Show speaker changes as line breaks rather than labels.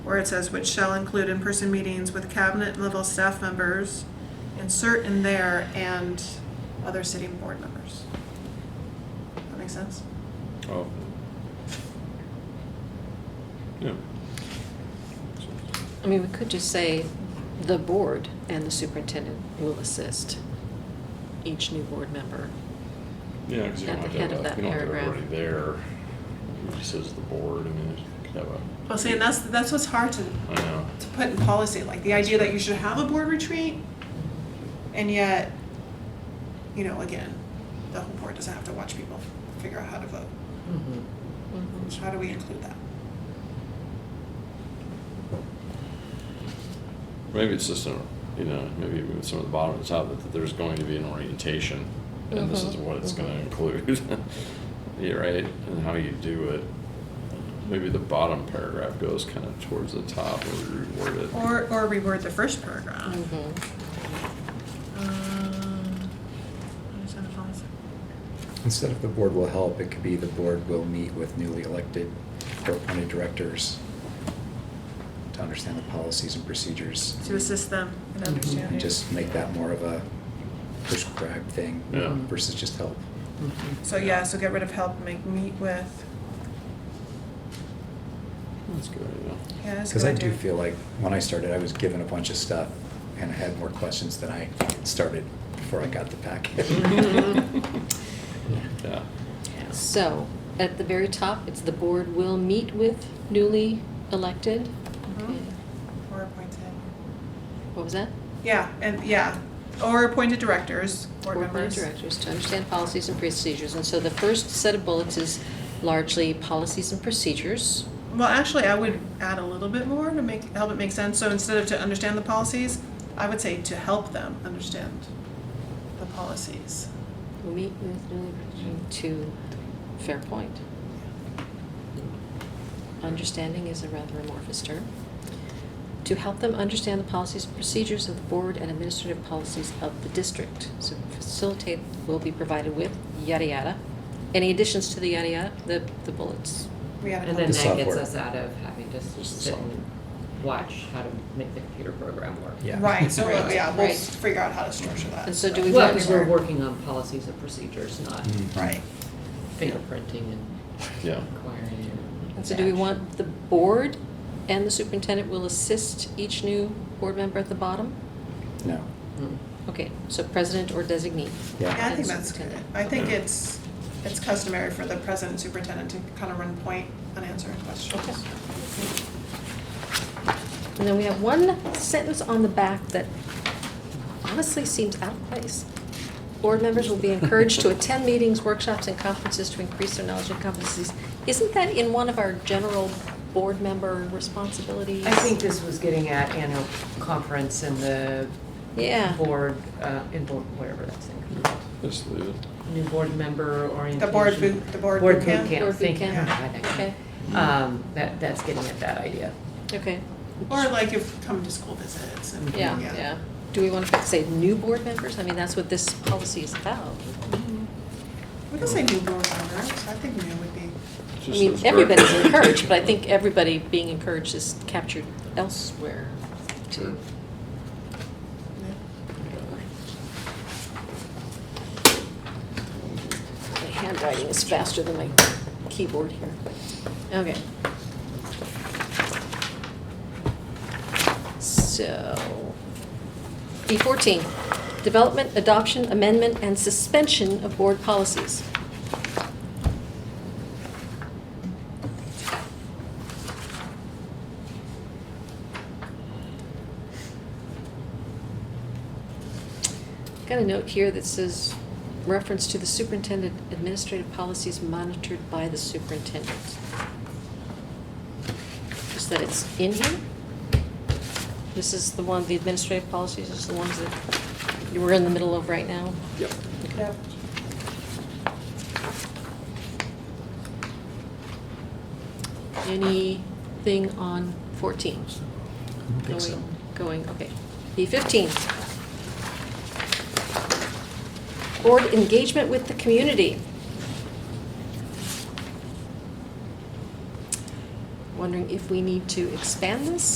where it says which shall include in-person meetings with cabinet level staff members, insert in there and other city board members. That makes sense?
Oh. Yeah.
I mean, we could just say the board and the superintendent will assist each new board member.
Yeah, because you don't
At
have
the
to have
head of
a-
that
you don't have to have
paragraph.
everybody there. It just says the board, I mean, it could have a,
Well, see, and that's, that's what's hard to,
I know.
to put in policy, like the idea that you should have a board retreat, and yet, you know, again, the whole board doesn't have to watch people figure out how to vote. So how do we include that?
Maybe it's just, a you know, maybe even with some of the bottom and top, that there's going to be an orientation, and this is
Mhm,
what it's gonna
mhm.
include. Yeah, right, and how you do it. Maybe the bottom paragraph goes kind of towards the top, or we reword it.
Or, or reword the first paragraph. Uh,
Mm-hmm.
Um, what is that, a policy?
Instead of the board will help, it could be the board will meet with newly elected or appointed directors to understand the policies and procedures.
To assist them in understanding.
And Mhm. just make that more of a prescribed thing
Yeah.
versus just help.
So yeah, so get rid of help, make meet with,
That's good, yeah.
yeah, that's a
Because
good
I do
idea.
feel like when I started, I was given a bunch of stuff and I had more questions than I started before I got the packet.
Mm-hmm. Yeah,
So, at the very top, it's the board will meet with newly elected.
Mhm. Or appointed.
What was that?
Yeah, and, yeah, or appointed directors, board members.
Directors to understand policies and procedures. And so the first set of bullets is largely policies and procedures.
Well, actually, I would add a little bit more to make, help it make sense, so instead of to understand the policies, I would say to help them understand the policies.
Will meet with newly elected to fair point. Understanding is a rather amorphous term. To help them understand the policies and procedures of the board and administrative policies of the district. So facilitate will be provided with, yada yada. Any additions to the yada yada, the, the bullets?
We had a
And then
The
that gets
software.
us out of having to s-
Just the
sit and
software.
watch how to make the computer program work.
Yeah.
Right, so, uh, yeah, we'll
Right.
s- figure out how to structure that.
And so do we
Well,
want
because we're
to-
working on policies and procedures, not
Mm.
Right.
fingerprinting and
yeah.
acquiring.
And So do we want the board and the superintendent will assist each new board member at the bottom?
No,
Hmm.
Okay, so president or designee.
Yeah, I
yeah.
think that's good. I think it's, it's customary for the president and superintendent to kind of run point on answering
Okay.
questions.
And then we have one sentence on the back that honestly seems out of place. Board members will be encouraged to attend meetings, workshops, and conferences to increase their knowledge and competencies. Isn't that in one of our general board member responsibilities?
I think this was getting at annual conference and the
Yeah.
board, uh, in board, whatever that's in,
Just leave it.
new board member orientation.
The board boot, the board boot camp?
Board boot
thank you.
camp.
God, that-
Okay,
Um, that, that's getting at that idea.
okay,
Or like if come to school visits and,
yeah, yeah. Do we want to say new board members? I mean, that's what this policy is about.
We can say new board members, I think new would be,
Just
I mean,
says
everybody's
direct-
encouraged, but I think everybody being encouraged is captured elsewhere
Sure.
too. My handwriting is faster than my keyboard here. Okay. So, B fourteen, development, adoption, amendment, and suspension of board policies. Got a note here that says, reference to the superintendent administrative policies monitored by the superintendent. Just that it's in here? This is the one, the administrative policies is the ones that you were in the middle of right now?
Yep.
yeah.
Anything on fourteen?
I don't think so.
Going, going, okay. B fifteen. Board engagement with the community. wondering if we need to expand this